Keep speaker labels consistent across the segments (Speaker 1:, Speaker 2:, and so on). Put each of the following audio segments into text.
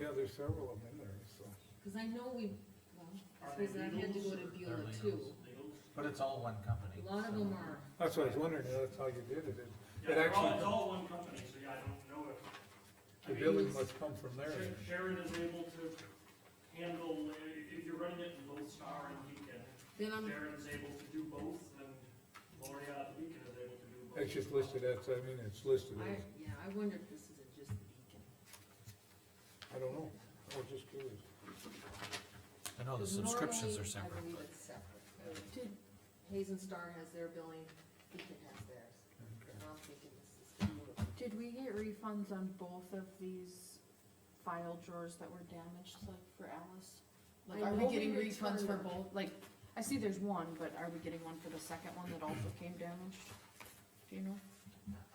Speaker 1: Yeah, there's several of them in there, so.
Speaker 2: Cause I know we, well, cause I had to go to Beulah too,
Speaker 3: But it's all one
Speaker 2: a
Speaker 3: company.
Speaker 2: lot of
Speaker 3: so-
Speaker 2: them are,
Speaker 1: That's what I was wondering, that's how you did it, it,
Speaker 4: Yeah,
Speaker 1: it
Speaker 4: they're all, it's
Speaker 1: actually,
Speaker 4: all one company, so yeah, I don't know if. I
Speaker 1: the
Speaker 4: mean,
Speaker 1: billing must come from there.
Speaker 4: Sher- Sharon is able to handle, uh, if you're running it in both Star and Beacon,
Speaker 2: then I'm,
Speaker 5: Um.
Speaker 4: Sharon's able to do both, and Lori out of Beacon is able to do both.
Speaker 1: It's just listed as, I mean, it's listed
Speaker 2: I,
Speaker 1: as,
Speaker 2: yeah, I wonder if this isn't just the beacon.
Speaker 1: I don't know, I was just curious.
Speaker 3: I know Oh, the
Speaker 2: 'Cause
Speaker 3: subscriptions
Speaker 2: normally,
Speaker 3: are separate,
Speaker 2: I believe
Speaker 3: but
Speaker 2: it's separate. Uh, two- Hazen Star has their billing, Beacon has theirs,
Speaker 1: Okay.
Speaker 2: and I'm thinking this is gonna be-
Speaker 6: Did we get refunds on both of these file drawers that were damaged, like for Alice? Like,
Speaker 2: I
Speaker 6: are we
Speaker 2: know we
Speaker 6: getting refunds for
Speaker 2: returned-
Speaker 6: both, like, I see there's one, but are we getting one for the second one that also came damaged? Do you know?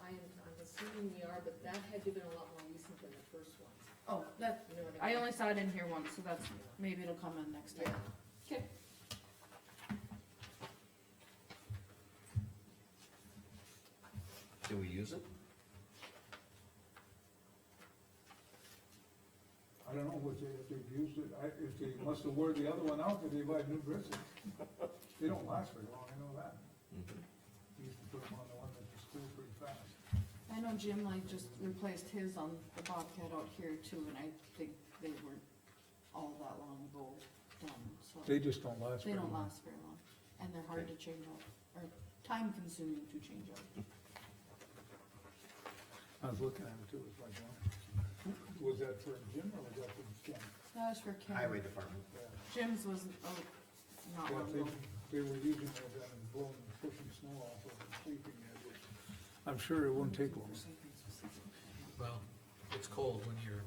Speaker 2: I am, I'm assuming we are, but that had to have been a lot more recent than the first one,
Speaker 6: Oh, that,
Speaker 2: you know what I
Speaker 6: I
Speaker 2: mean?
Speaker 6: only saw it in here once, so that's, maybe it'll come in next time.
Speaker 2: Yeah.
Speaker 6: Okay.
Speaker 7: Do we use it?
Speaker 1: I don't know what they, if they've used it, I, if they must have wore the other one out, but they buy new bristles. They don't last very long, I know that.
Speaker 6: Mm-hmm.
Speaker 1: We used to put them on the one that was cool pretty fast.
Speaker 6: I know Jim like just replaced his on the Bobcat out here too, and I think they weren't all that long ago done, so.
Speaker 1: They just don't last
Speaker 6: They
Speaker 1: very
Speaker 6: don't
Speaker 1: long.
Speaker 6: last very long, and they're hard to change out, or time consuming to change out.
Speaker 1: I was looking at it too, it's like, wow. was that for Jim or was that for Ken?
Speaker 6: That was for
Speaker 7: Highway
Speaker 6: Ken,
Speaker 7: department.
Speaker 1: Yeah.
Speaker 6: Jim's was, oh, not
Speaker 1: Yeah,
Speaker 6: long
Speaker 1: they,
Speaker 6: ago.
Speaker 1: they were using it then and blowing, pushing snow off of it, sweeping it. I'm sure it won't take long.
Speaker 3: well, it's cold when you're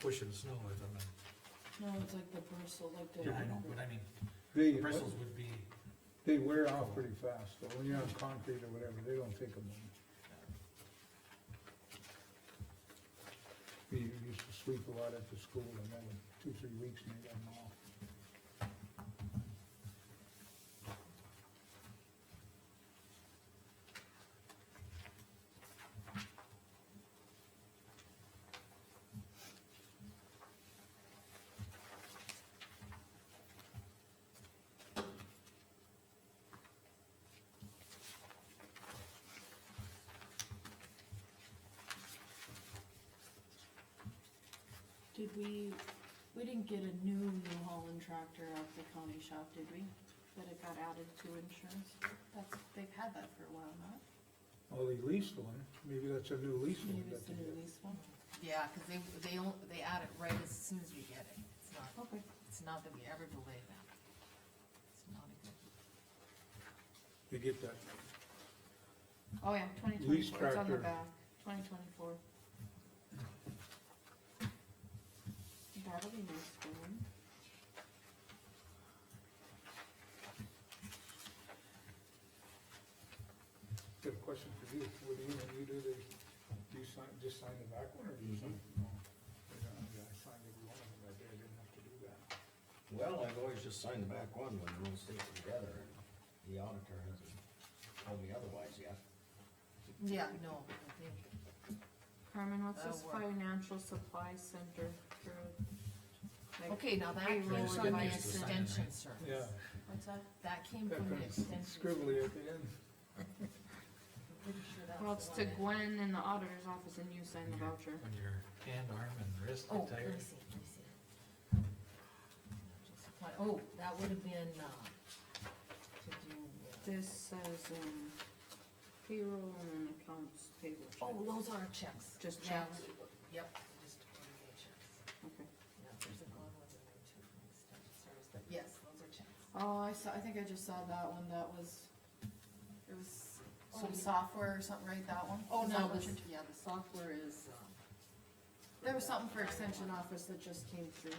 Speaker 3: pushing snow with them. and-
Speaker 6: No, it's like the bristle, like the.
Speaker 3: I know, but I mean,
Speaker 1: They,
Speaker 3: bristles would be,
Speaker 1: they wear off pretty fast, though, when you're on concrete or whatever, they don't take them long. We used to sweep a lot at the school and then in two, three weeks and they got them off.
Speaker 6: Did we, we didn't get a new New Holland tractor at the county shop, did we? That it got added to insurance? That's, they've had that for a while, not?
Speaker 1: Well, they leased one, maybe that's a new lease one
Speaker 6: Maybe
Speaker 1: that
Speaker 6: it's the
Speaker 1: they
Speaker 6: new
Speaker 1: did.
Speaker 6: lease one?
Speaker 5: Yeah, cause they, they, on- they add it right as soon as we get it. It's not,
Speaker 6: Okay.
Speaker 5: it's not that we ever delay that. It's not a good.
Speaker 1: They get that,
Speaker 6: Oh, yeah, twenty twenty-four, it's on
Speaker 1: tractor.
Speaker 6: the back, twenty twenty-four. That'll be nice for them.
Speaker 1: good question for you, what do you, when you do the, do you sign, just sign the back one or do you sign? no. Yeah, I signed every one of them that day, I didn't have to do that.
Speaker 7: Well, I've always just signed the back one when the rules states together, and the auditor hasn't told me otherwise yet.
Speaker 5: Yeah, no, I think,
Speaker 6: Carmen, what's
Speaker 5: That'll
Speaker 6: this
Speaker 5: Uh, work.
Speaker 6: financial supply center for? like,
Speaker 5: okay, now that
Speaker 6: Hey,
Speaker 5: came
Speaker 6: Rose,
Speaker 5: from the
Speaker 6: somebody
Speaker 3: has to sign it,
Speaker 5: extension
Speaker 3: right?
Speaker 5: service.
Speaker 1: Yeah.
Speaker 6: What's that?
Speaker 5: That came
Speaker 1: That
Speaker 5: from the
Speaker 1: kind of
Speaker 5: extension. service.
Speaker 1: scribbly at the end.
Speaker 5: I'm pretty sure that's
Speaker 6: Well, it's
Speaker 5: the
Speaker 6: to
Speaker 5: one that-
Speaker 6: Gwen in the auditor's office and you sign
Speaker 5: Mm-hmm.
Speaker 6: the voucher.
Speaker 3: when your hand, arm and wrist
Speaker 5: Oh,
Speaker 3: are
Speaker 5: let me
Speaker 3: tired.
Speaker 5: see, let me see. Supply- Oh, that would have been, uh, to do, with-
Speaker 6: This says, um, payroll and accounts payable. check.
Speaker 5: oh, those are checks.
Speaker 6: Just
Speaker 5: Yeah,
Speaker 6: checks?
Speaker 5: we- Yep, just ordinary checks.
Speaker 6: Okay.
Speaker 5: Yeah, there's a one with a note too from extension service, but yes, those are checks.
Speaker 6: Oh, I saw, I think I just saw that one, that was, it was
Speaker 5: Oh,
Speaker 6: some
Speaker 5: yeah.
Speaker 6: software or something, right, that one?
Speaker 5: Oh,
Speaker 6: Is
Speaker 5: no,
Speaker 6: that what
Speaker 5: this-
Speaker 6: you're-
Speaker 5: yeah, the software is, um.
Speaker 6: There was something for extension office that just came through.